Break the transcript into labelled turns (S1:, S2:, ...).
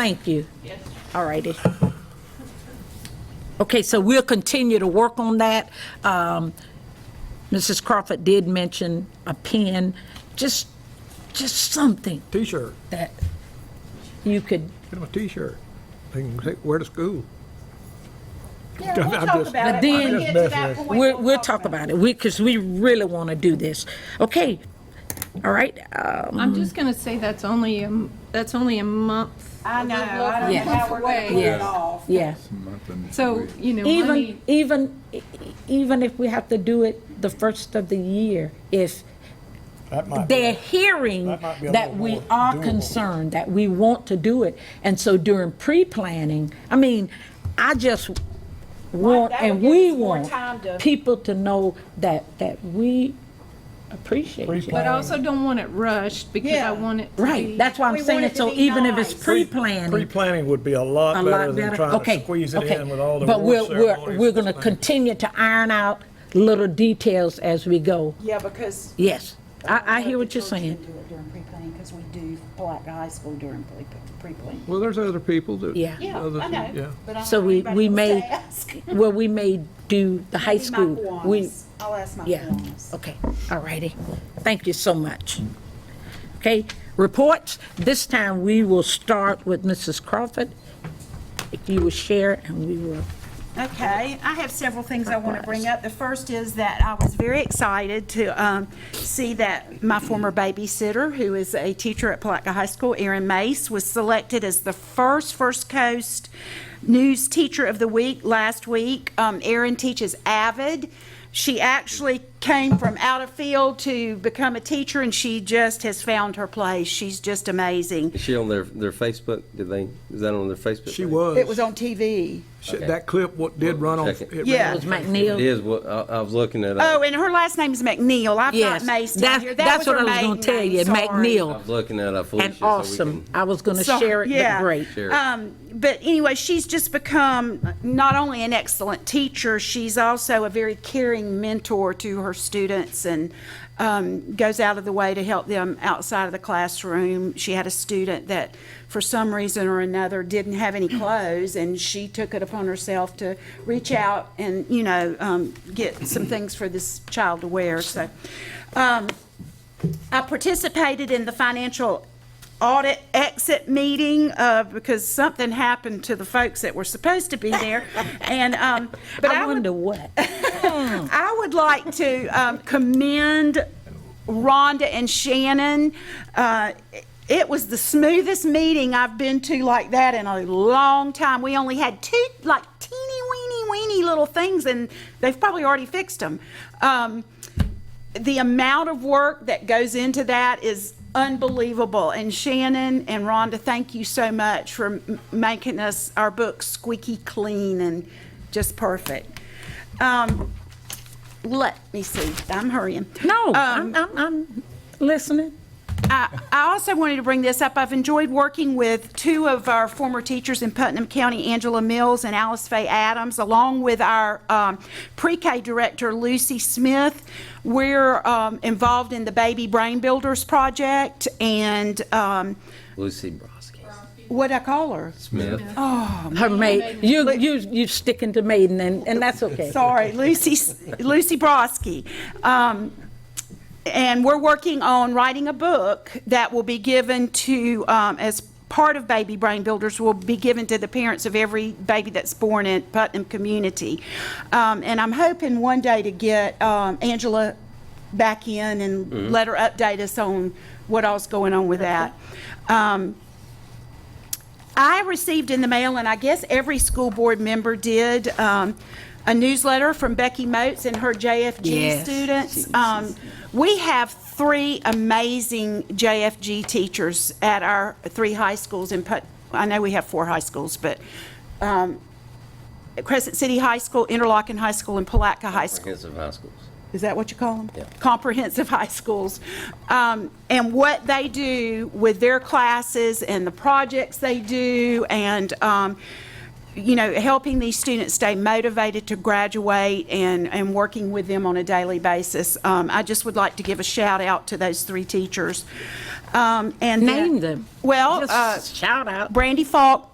S1: Thank you. Yes. All righty. Okay, so we'll continue to work on that. Um, Mrs. Crawford did mention a pen, just, just something
S2: T-shirt.
S1: that you could,
S2: Get them a T-shirt. They can say, wear to school.
S3: Yeah,
S2: I'm
S3: we'll talk
S2: just-
S3: about
S1: But
S3: it.
S1: then-
S3: When we get to that point,
S1: we'll, we'll talk about it, we, because we really want to do this. Okay, all right, um,
S4: I'm just going to say that's only, a m- that's only a month.
S3: I know, I don't know
S4: Yeah.
S3: how we're gonna put it off.
S1: yeah.
S4: So, you know, let me,
S1: Even, even, e- even if we have to do it the first of the year, if
S2: That might be.
S1: they're hearing
S2: That might be a
S1: that
S2: little
S1: we
S2: more
S1: are
S2: doable.
S1: concerned, that we want to do it. And so during pre-planning, I mean, I just want,
S3: that
S1: and
S3: would give
S1: we
S3: us more
S1: want
S3: time to-
S1: people to know that, that we appreciate you.
S4: but I also don't want it rushed because
S3: Yeah.
S4: I want it to
S1: Right,
S4: be-
S1: that's why
S3: We
S1: I'm
S3: want
S1: saying,
S3: it to
S1: so
S3: be
S1: even if it's
S3: nice.
S1: pre-planning,
S2: Pre-planning would be
S1: a
S2: a lot better
S1: lot
S2: than
S1: better.
S2: trying
S1: Okay,
S2: to squeeze it
S1: okay.
S2: in with all the
S1: But
S2: award
S1: we'll, we're,
S2: ceremonies.
S1: we're going to continue to iron out little details as we go.
S3: Yeah, because
S1: Yes, I, I hear
S5: But
S1: what
S5: the
S1: you're
S5: church can
S1: saying.
S5: do it during pre-planning, because we do Black High School during pre- pre-planning.
S2: Well, there's other people that.
S1: Yeah.
S3: Yeah,
S2: others-
S3: I know.
S2: yeah.
S3: But I don't
S1: So
S3: know
S1: we,
S3: anybody
S1: we
S3: else
S1: may,
S3: to ask.
S1: well, we may do the high
S3: Maybe my
S1: school. We,
S3: Kiwanis. I'll ask my
S1: yeah,
S3: Kiwanis.
S1: okay, all righty. Thank you so much. Okay, reports, this time we will start with Mrs. Crawford. If you will share, and we will,
S3: Okay, I have several things I want to bring up. The first is that I was very excited to um, see that my former babysitter, who is a teacher at Palaca High School, Erin Mace, was selected as the first First Coast News Teacher of the Week last week. Um, Erin teaches AVID. She actually came from out of field to become a teacher, and she just has found her place. She's just amazing.
S6: Is she on their, their Facebook? Did they, is that on their Facebook?
S2: She
S6: page?
S2: was.
S3: It was on TV.
S2: She- That clip what did run on.
S6: Second.
S2: it
S3: Yeah.
S2: ran
S1: was
S2: on-
S1: McNeil?
S6: It is, what, I, I was looking at, uh,
S3: Oh,
S6: I
S3: and her last name's McNeil. I've
S1: Yes,
S3: got Mace down
S1: that's-
S3: here. That
S1: that's
S3: was
S1: what
S3: her
S1: I was gonna
S3: maiden
S1: tell
S3: name,
S1: you,
S3: sorry.
S1: McNeil.
S6: was looking at a Felicia.
S1: and awesome. I was going to
S3: So-
S1: share it, but
S3: yeah.
S1: great.
S6: Share it.
S3: Um, but anyway, she's just become not only an excellent teacher, she's also a very caring mentor to her students and um, goes out of the way to help them outside of the classroom. She had a student that, for some reason or another, didn't have any clothes, and she took it upon herself to reach out and, you know, um, get some things for this child to wear. So, um, I participated in the financial audit exit meeting uh, because something happened to the folks that were supposed to be there. And, um, but
S1: I
S3: I would,
S1: wonder what.
S3: I would like to um, commend Rhonda and Shannon. Uh, It was the smoothest meeting I've been to like that in a long time. We only had two, like teeny weeny weeny little things and they've probably already fixed them. Um, the amount of work that goes into that is unbelievable. And Shannon and Rhonda, thank you so much for m- making us, our book squeaky clean and just perfect. Um, Let me see, I'm hurrying.
S1: No,
S3: Um,
S1: I'm, I'm, I'm listening.
S3: I I also wanted to bring this up. I've enjoyed working with two of our former teachers in Putnam County, Angela Mills and Alice Faye Adams, along with our um, pre-K director, Lucy Smith. We're um, involved in the Baby Brain Builders Project, and um,
S6: Lucy Broski.
S3: what'd I call her?
S6: Smith.
S3: Oh,
S1: Her maid, you, you, you sticking to maiden, and, and that's okay.
S3: Sorry, Lucy, Lucy Broski. Um, And we're working on writing a book that will be given to, um, as part of Baby Brain Builders, will be given to the parents of every baby that's born in Putnam community. Um, And I'm hoping one day to get um, Angela back in and let her update us on what all's going on with that. Um, I received in the mail, and I guess every school board member did, um, a newsletter from Becky Moats and her JFG
S1: Yes.
S3: students. Um, We have three amazing JFG teachers at our three high schools in Put, I know we have four high schools, but um, Crescent City High School, Interlochen High School, and Palatka High School.
S6: Comprehensive high schools.
S3: Is that what you call them?
S6: Yeah.
S3: Comprehensive high schools. Um, And what they do with their classes and the projects they do and, um, you know, helping these students stay motivated to graduate and, and working with them on a daily basis. Um, I just would like to give a shout out to those three teachers.
S1: Um, and then-
S3: Name them.
S1: Well, uh,
S3: Just shout out. uh,
S1: Brandy Falk,